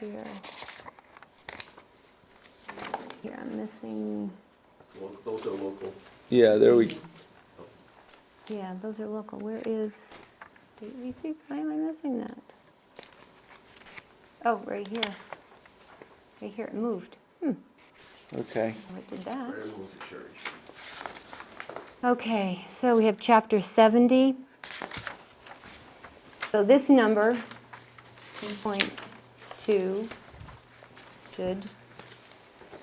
Here. Here, I'm missing, Lo- Those are local. Yeah, there we, yeah, those are local. Where is state receipts? Why am I missing that? Oh, right here. Right here, it moved. Hmm, okay. what did that? Prayer moves the church. Okay, so we have chapter 70. So this number, 2.2, should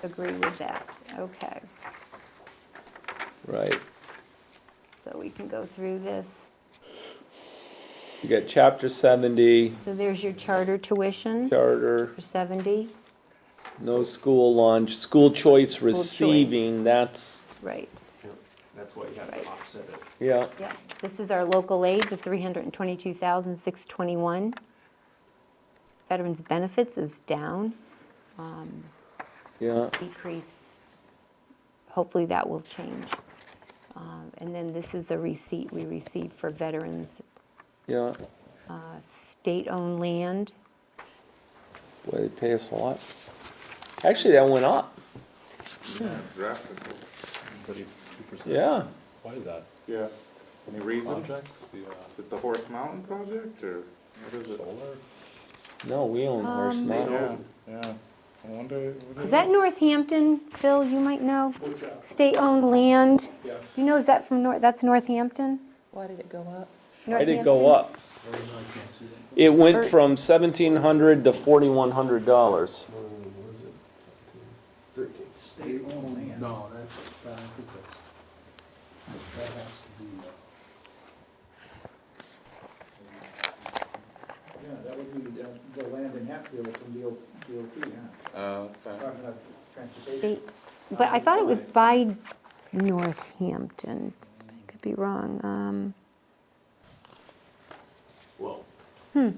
agree with that. Okay, Right. so we can go through this. You got chapter 70, So there's your charter tuition charter, for 70, no school lunch, school choice choice. receiving, that's, right, That's why you have Right. to offset it. yeah, yeah. This is our local aid, the 322,621. Veterans benefits is down. yeah, decrease, hopefully that will change. Um, And then this is a receipt we received for veterans, yeah. uh, state-owned land. Boy, they pay us a lot. Actually, that went up, Drastically. yeah. Why is that? Yeah. Any reason? Is Projects, the uh, it the Horse Mountain project or what is it? solar? No, we own Horse Um, Mountain. Yeah, yeah. I wonder. what it Is that Northampton, Phil, you might know? What's that? State-owned land, Yeah. do you know, is that from North, that's Northampton? Why did it go up? Why did it go up? It went from 1,700 to 4,100 dollars. Thirteen. State only. No, that's, I think that's, that has to be. uh, Yeah, that would be the, the land in Hatfield from DOT, DOT, huh? Oh, okay. Department of Transportation. State- But I thought it was by Northampton, I could be wrong. Um, Well. Hmm.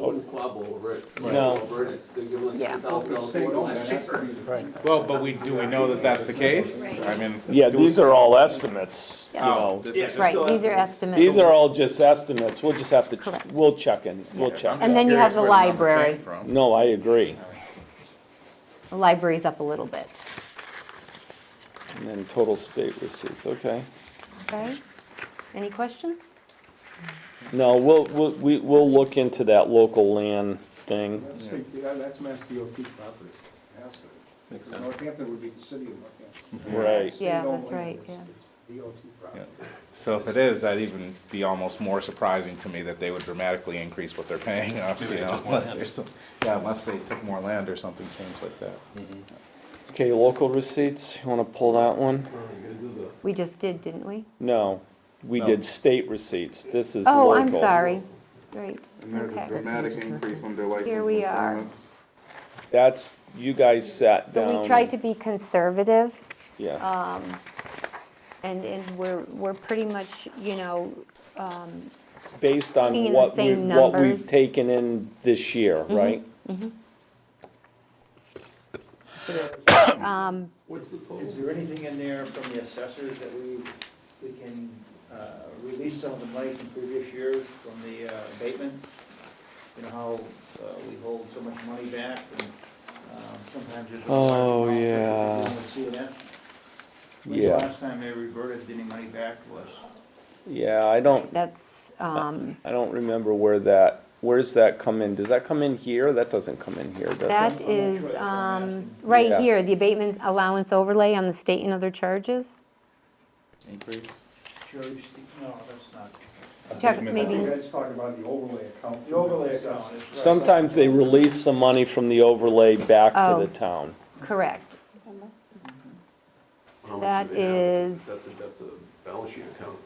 Old Quabo over it. No. Over it, it's- They're giving us Yeah. ten thousand dollars. State more. only, that has to be the- Well, but we, do we know that that's the case? I mean. Yeah, do these we- are all estimates, you Yeah. know. Oh, this Yeah. is just, Right, these are estimates. These are all just estimates, we'll just have Correct. to, we'll check in, we'll check. And then you have the Curious where number came library. from. No, I agree. The library's up a little bit, And then total state receipts, okay. okay? Any questions? No, we'll, we'll, we- we'll look into that local land thing. That's state, yeah, that's Mass DOT property. Has to. Because Northampton would be the city of Northampton. Right. State Yeah, only that's right, is yeah. DOT property. So if it is, that'd even be almost more surprising to me that they would dramatically increase what they're paying us, you know, unless there's some, yeah, unless they took more land or something strange like that. Okay, local receipts, you wanna pull that one? We just did, didn't we? No, we No. did state receipts, this is local. Oh, I'm sorry. Great, And there's a okay. dramatic increase under license. Here we and are. permits. That's, you guys sat down. So we tried to uh, be conservative, Yeah, and, and we're, we're pretty much, you know, it's based Looking on in the what we, same what we've numbers. Mm-hmm. taken in this year, right? um, What's the total? Is there anything in there from the assessors that we, we can uh, release some of the money from previous years from the uh, abatement? You know how uh, we hold so much money back and um, sometimes there's. a large Oh, amount that yeah. we're dealing with CNS. When's the Yeah. last time they reverted any money back to us? Yeah, I don't, that's, um, I don't remember where that, where's that come in? Does that come in here? That doesn't come in here, does that it? I'm not is, sure. um, Yeah. right here, the abatement allowance overlay on the state and other charges. Increase? Sure, you see- no, that's not. Check, You maybe, guys talked about the overlay account. The overlay account. is- Sometimes they release some money from the overlay back to Oh. the town. correct. How much that do they have? is- That's a, that's a balance sheet account.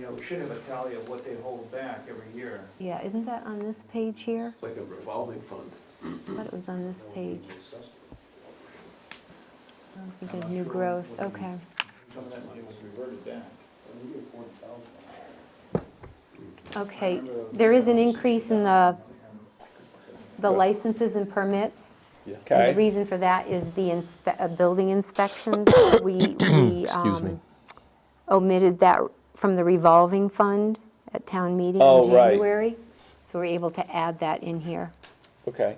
Yeah, we should have a tally of what they hold back every year. Yeah, isn't that on this page here? It's like a revolving fund. I thought it was on this page. I don't think I'm of not new sure growth, what the- okay. Some of that money was reverted back. We get forty thousand. Okay, there is an increase in the, the licenses and permits. And Okay? the reason for that is the inspe- uh, building inspections. We we, um, omitted that from the revolving fund at town meeting Oh, in right. January. So we're able to add that in here. Okay.